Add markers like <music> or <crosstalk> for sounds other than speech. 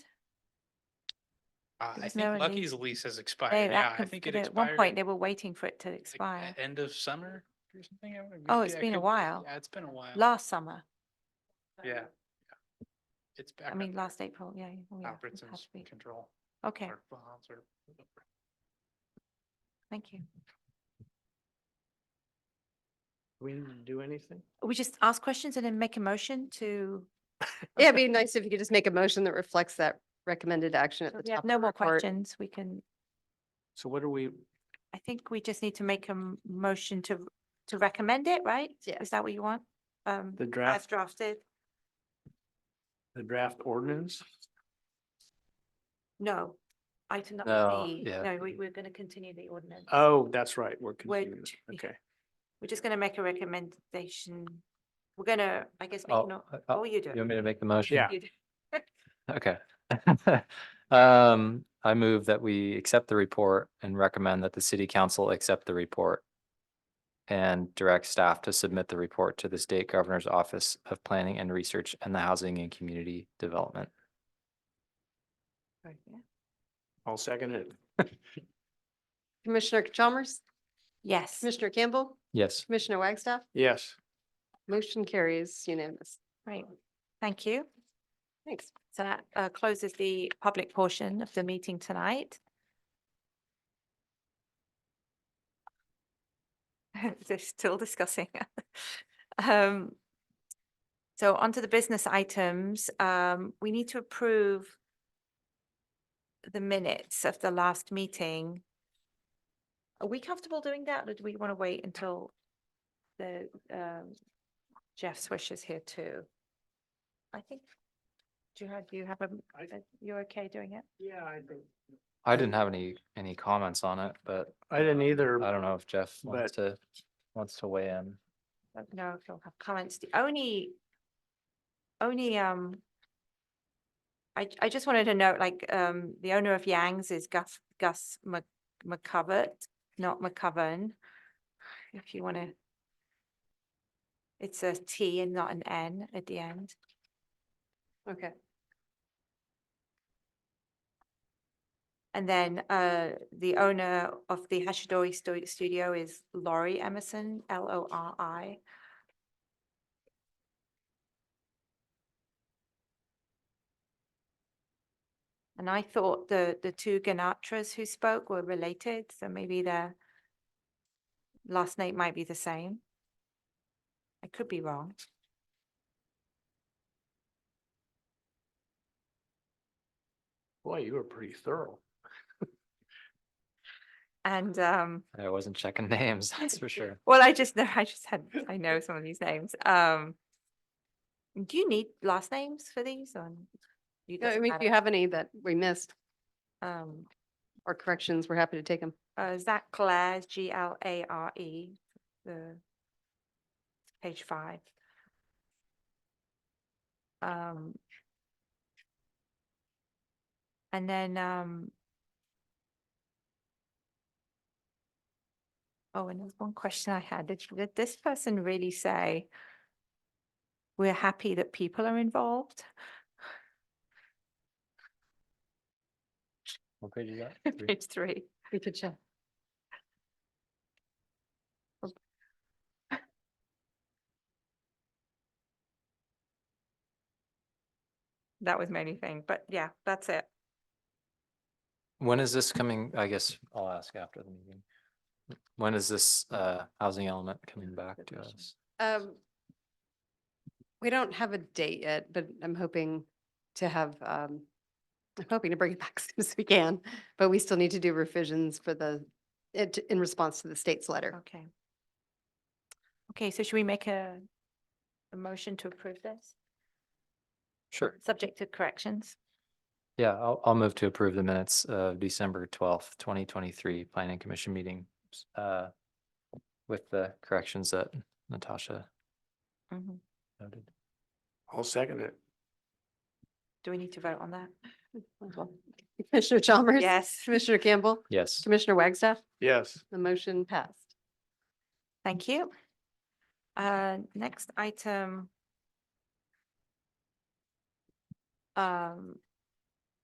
Uh, I There's no think release. Lucky's lease has They, expired. Yeah, that I conf- think it they- at one expired. point, they were waiting for it to like, expire. at End of summer or something. I would- Oh, it's yeah, it been a could- while. Yeah, it's been a while. Last summer, Yeah. yeah. It's back. I mean, last April, yeah. oh, yeah, it had Albertson's to be. control Okay, or bonds or. whatever. thank you. We didn't do anything? Uh, We just ask questions and then make a motion to, Yeah, it'd be nice if you could just make a motion that reflects that recommended action at so the we top. have no of the more report. questions. We can, So what are we, I think we just need to make a m- motion to, to recommend it, right? Yeah. Is that what you want? Um, the as draft, drafted? the draft ordinance? No. Item number No, B. yeah. No, we, we're going to continue the ordinance. Oh, that's right, we're continuing. t- yeah. Okay, We're just going to make a recommendation. We're going to, I guess, make Oh, no, uh, oh, uh, you do. You want me to make the motion? Yeah. You do. Okay. <laughs> Um, I move that we accept the report and recommend that the city council accept the report. And direct staff to submit the report to the state governor's office of planning and research and the housing and community development. Yeah. I'll second it. Commissioner Chalmers, Yes. Commissioner Campbell, Yes. Commissioner Wagstaff, Yes. motion carries unanimous. Right, thank you. Thanks. So that uh, closes the public portion of the meeting tonight. <laughs> They're still discussing. <laughs> Um, So onto the business items, um, we need to approve the minutes of the last meeting. Are we comfortable doing that or do we want to wait until the um, Jeff's wishes here too? I think do you have, do you have a, I- a- you're okay doing it? Yeah, I think. I didn't have any, any comments on it, but I didn't either. I don't know if Jeff wants to, wants to weigh in. Don't know if you'll have comments. The only, only, um, I, I just wanted to note, like, um, the owner of Yang's is Gus, Gus Mc- McCovert, not McCoven. If you want to. It's a T and not an N at the end. Okay. And then uh, the owner of the Hashidori Stu- Studio is Laurie Emerson, L O R I. And I thought the, the two Ganatras who spoke were related, so maybe their last name might be the same. I could be wrong. Boy, you were pretty thorough. And um, I wasn't checking <laughs> names, that's for sure. Well, I just know, <laughs> I just had, I know some of these names. Um, do you need last names for these or? you No, I doesn't mean, if you matter? have any that we missed Um, or corrections, we're happy to take them. uh, Zach Clare, G L A R E, the page five. Um, and then, um, oh, and there's one question I had. Did, did this person really say, we're happy that people are involved? <laughs> What page is that? <laughs> Three? Page three. We could check. That was my only thing, but yeah, that's it. When is this coming? I guess I'll ask after the meeting. When is this uh housing element coming back good to question. us? Um, we don't have a date yet, but I'm hoping to have, um, I'm hoping to bring it back <laughs> as soon as we can, but we still need to do revisions for the, it, in response to the state's letter. Okay. Okay, so should we make a, a motion to approve this, Sure. subject to corrections? Yeah, I'll I'll move to approve the minutes of December twelfth, twenty twenty-three Planning Commission meeting. s- uh, With the corrections that Natasha Mhm. noted. I'll second it. Do we need to vote on that? Commissioner Chalmers? Yes, Commissioner Campbell? Yes. Commissioner Wagstaff? Yes. The motion passed. thank you. Uh, next item. Um,